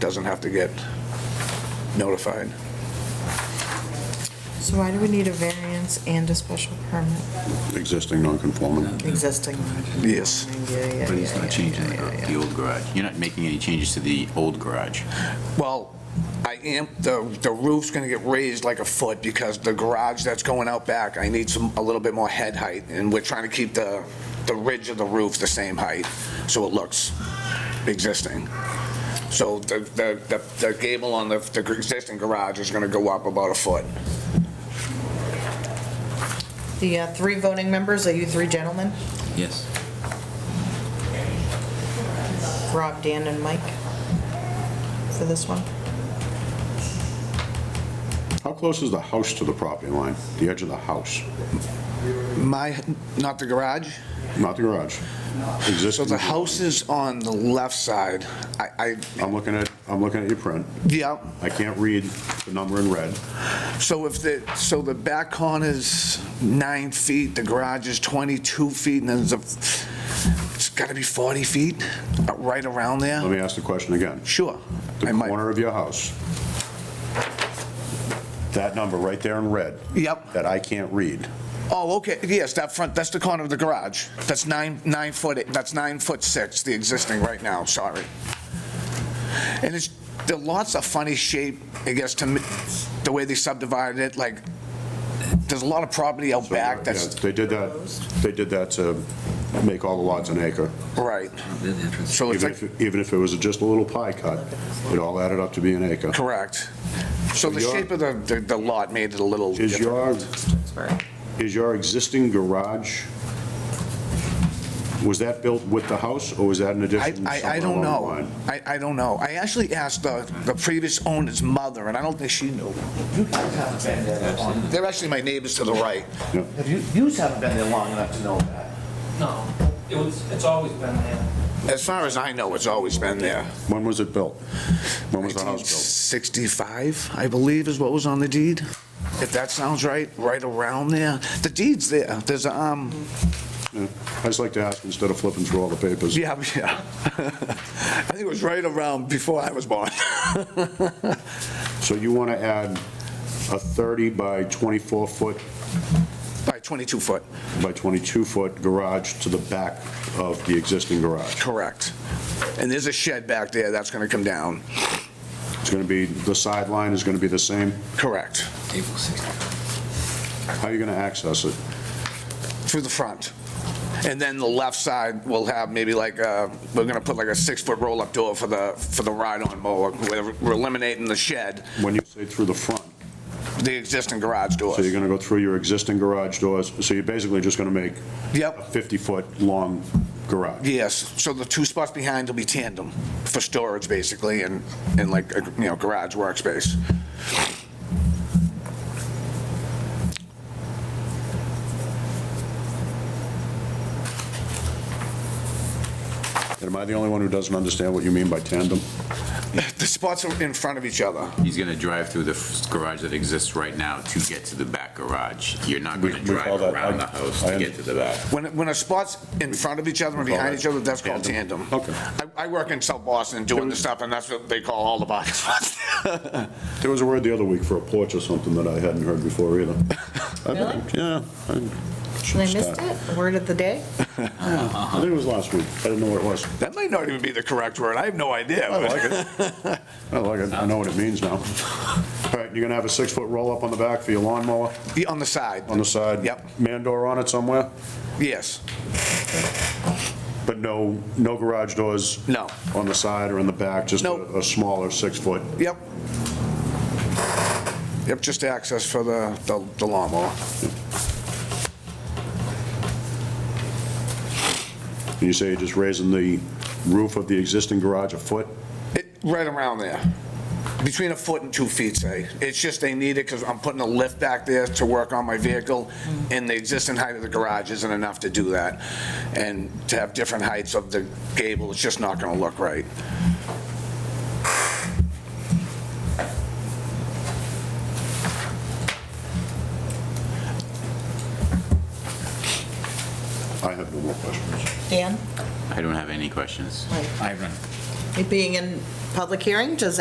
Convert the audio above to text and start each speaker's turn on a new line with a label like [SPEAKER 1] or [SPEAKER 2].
[SPEAKER 1] doesn't have to get notified.
[SPEAKER 2] So why do we need a variance and a special permit
[SPEAKER 3] existing non-conforming.
[SPEAKER 2] existing?
[SPEAKER 1] Yes.
[SPEAKER 2] Yeah, yeah,
[SPEAKER 4] But he's
[SPEAKER 2] yeah,
[SPEAKER 4] not
[SPEAKER 2] yeah,
[SPEAKER 4] changing the
[SPEAKER 2] yeah,
[SPEAKER 4] gar-
[SPEAKER 2] yeah,
[SPEAKER 4] the old garage. You're not making any changes to the old garage.
[SPEAKER 1] Well, I am, the the roof's going to get raised like a foot because the garage that's going out back, I need some, a little bit more head height, and we're trying to keep the, the ridge of the roof the same height, so it looks existing. So the, the, the- the gable on the, the existing garage is going to go up about a foot.
[SPEAKER 2] yeah. The uh, three voting members, are you three gentlemen?
[SPEAKER 4] Yes.
[SPEAKER 2] Rob, Dan, and Mike? For this one?
[SPEAKER 3] How close is the house to the property line? The edge of the house,
[SPEAKER 1] My, not the garage?
[SPEAKER 3] not the garage?
[SPEAKER 1] So
[SPEAKER 3] Existing.
[SPEAKER 1] the house is on the left side. I, I,
[SPEAKER 3] I'm looking at, I'm looking at your print.
[SPEAKER 1] yeah,
[SPEAKER 3] I can't read the number in red.
[SPEAKER 1] So if the, so the back corner's nine feet, the garage is 22 feet, and then there's a, it's got to be 40 feet, uh, right around
[SPEAKER 3] Let
[SPEAKER 1] there?
[SPEAKER 3] me ask the question again.
[SPEAKER 1] Sure.
[SPEAKER 3] The
[SPEAKER 1] I might-
[SPEAKER 3] corner of your house, that number right there in red,
[SPEAKER 1] Yep.
[SPEAKER 3] that I can't read,
[SPEAKER 1] Oh, okay, yes, that front, that's the corner of the garage. That's nine, nine foot, that's nine foot six, the existing right now, sorry. And it's, the lot's a funny shape, I guess, to me, the way they subdivided it, like, there's a lot of property out back that's,
[SPEAKER 3] Yeah, They did that, they did that to make all the lots an acre.
[SPEAKER 1] right.
[SPEAKER 2] Oh,
[SPEAKER 1] So it's
[SPEAKER 3] Even
[SPEAKER 1] like.
[SPEAKER 3] if, even if it was just a little pie cut, it all added up to be an acre.
[SPEAKER 1] Correct. So the
[SPEAKER 3] your-
[SPEAKER 1] shape of the, the- the lot made it a little
[SPEAKER 3] Is
[SPEAKER 1] different.
[SPEAKER 3] your,
[SPEAKER 2] Sorry.
[SPEAKER 3] is your existing garage, was that built with the house, or was that an
[SPEAKER 1] I,
[SPEAKER 3] addition
[SPEAKER 1] I, I
[SPEAKER 3] somewhere
[SPEAKER 1] don't
[SPEAKER 3] along the
[SPEAKER 1] know.
[SPEAKER 3] line?
[SPEAKER 1] I, I don't know. I actually asked the, the previous owner's mother, and I don't think she knew.
[SPEAKER 5] You guys haven't been there long.
[SPEAKER 1] They're actually my neighbors to the right.
[SPEAKER 5] Have You you haven't been there long enough to know that.
[SPEAKER 6] No, it was, it's always been there.
[SPEAKER 1] As far as I know, it's always been there.
[SPEAKER 3] When was it built? When was the house
[SPEAKER 1] 1965, I believe, is what was on the deed, if that sounds right, right around there. The deed's there. There's, a, um,
[SPEAKER 3] built? Yeah. I just like to ask, instead of flipping through all the papers.
[SPEAKER 1] yeah, yeah. I think it was right around before I was born.
[SPEAKER 3] So you want to add a 30 by 24-foot
[SPEAKER 1] By 22 foot,
[SPEAKER 3] by 22-foot garage to the back of the existing garage?
[SPEAKER 1] correct. And there's a shed back there that's going to come down.
[SPEAKER 3] It's going to be, the sideline is going to be the same?
[SPEAKER 1] Correct.
[SPEAKER 3] How are you going to access it?
[SPEAKER 1] Through the front. And then the left side will have maybe like, uh, we're going to put like a six-foot roll-up door for the, for the ride-on mower. We're we're eliminating the shed,
[SPEAKER 3] When you say through the front,
[SPEAKER 1] the existing garage
[SPEAKER 3] so you're
[SPEAKER 1] doors.
[SPEAKER 3] going to go through your existing garage doors, so you're basically just going to make a
[SPEAKER 1] Yep,
[SPEAKER 3] 50-foot long garage?
[SPEAKER 1] yes. So the two spots behind will be tandem for storage, basically, and, and like, a, you know, garage workspace.
[SPEAKER 3] And am I the only one who doesn't understand what you mean by tandem?
[SPEAKER 1] The spots are in front of each other.
[SPEAKER 4] He's going to drive through the f- garage that exists right now to get to the back garage. You're not going
[SPEAKER 3] We-
[SPEAKER 4] to
[SPEAKER 3] we call
[SPEAKER 4] drive
[SPEAKER 3] that-
[SPEAKER 4] around
[SPEAKER 3] I-
[SPEAKER 4] the house
[SPEAKER 3] I
[SPEAKER 4] to
[SPEAKER 3] am-
[SPEAKER 4] get to the back.
[SPEAKER 1] When, when a spot's in front of each other and behind each other, that's called tandem.
[SPEAKER 3] Okay.
[SPEAKER 1] I, I work in South Boston doing this stuff, and that's what they call all the box spots.
[SPEAKER 3] There was a word the other week for a porch or something that I hadn't heard before either. Really? Yeah.
[SPEAKER 2] Did I missed it? The Word of the day?
[SPEAKER 3] I think it was last week. I didn't know what it was.
[SPEAKER 1] That might not even be the correct word. I have no idea.
[SPEAKER 3] I like it. I like it. I know what it means now. All right, you're gonna have a six-foot roll-up on the back for your lawnmower,
[SPEAKER 1] Yeah, On the side,
[SPEAKER 3] on the side?
[SPEAKER 1] Yep.
[SPEAKER 3] Man door on it somewhere?
[SPEAKER 1] yes.
[SPEAKER 3] But no, no garage doors?
[SPEAKER 1] No.
[SPEAKER 3] On the side or in the back, just a
[SPEAKER 1] Nope.
[SPEAKER 3] a smaller six-foot?
[SPEAKER 1] Yep. Yep, just access for the the the lawnmower.
[SPEAKER 3] And you say you're just raising the roof of the existing garage a foot?
[SPEAKER 1] It- Right around there, between a foot and two feet, say. It's just they need it because I'm putting a lift back there to work on my vehicle, and the existing height of the garage isn't enough to do that. And to have different heights of the gable, it's just not going to look right.
[SPEAKER 3] I have no more questions.
[SPEAKER 2] Dan?
[SPEAKER 4] I don't have any questions.
[SPEAKER 2] Mike?
[SPEAKER 7] I run.
[SPEAKER 2] It being in Public hearing, does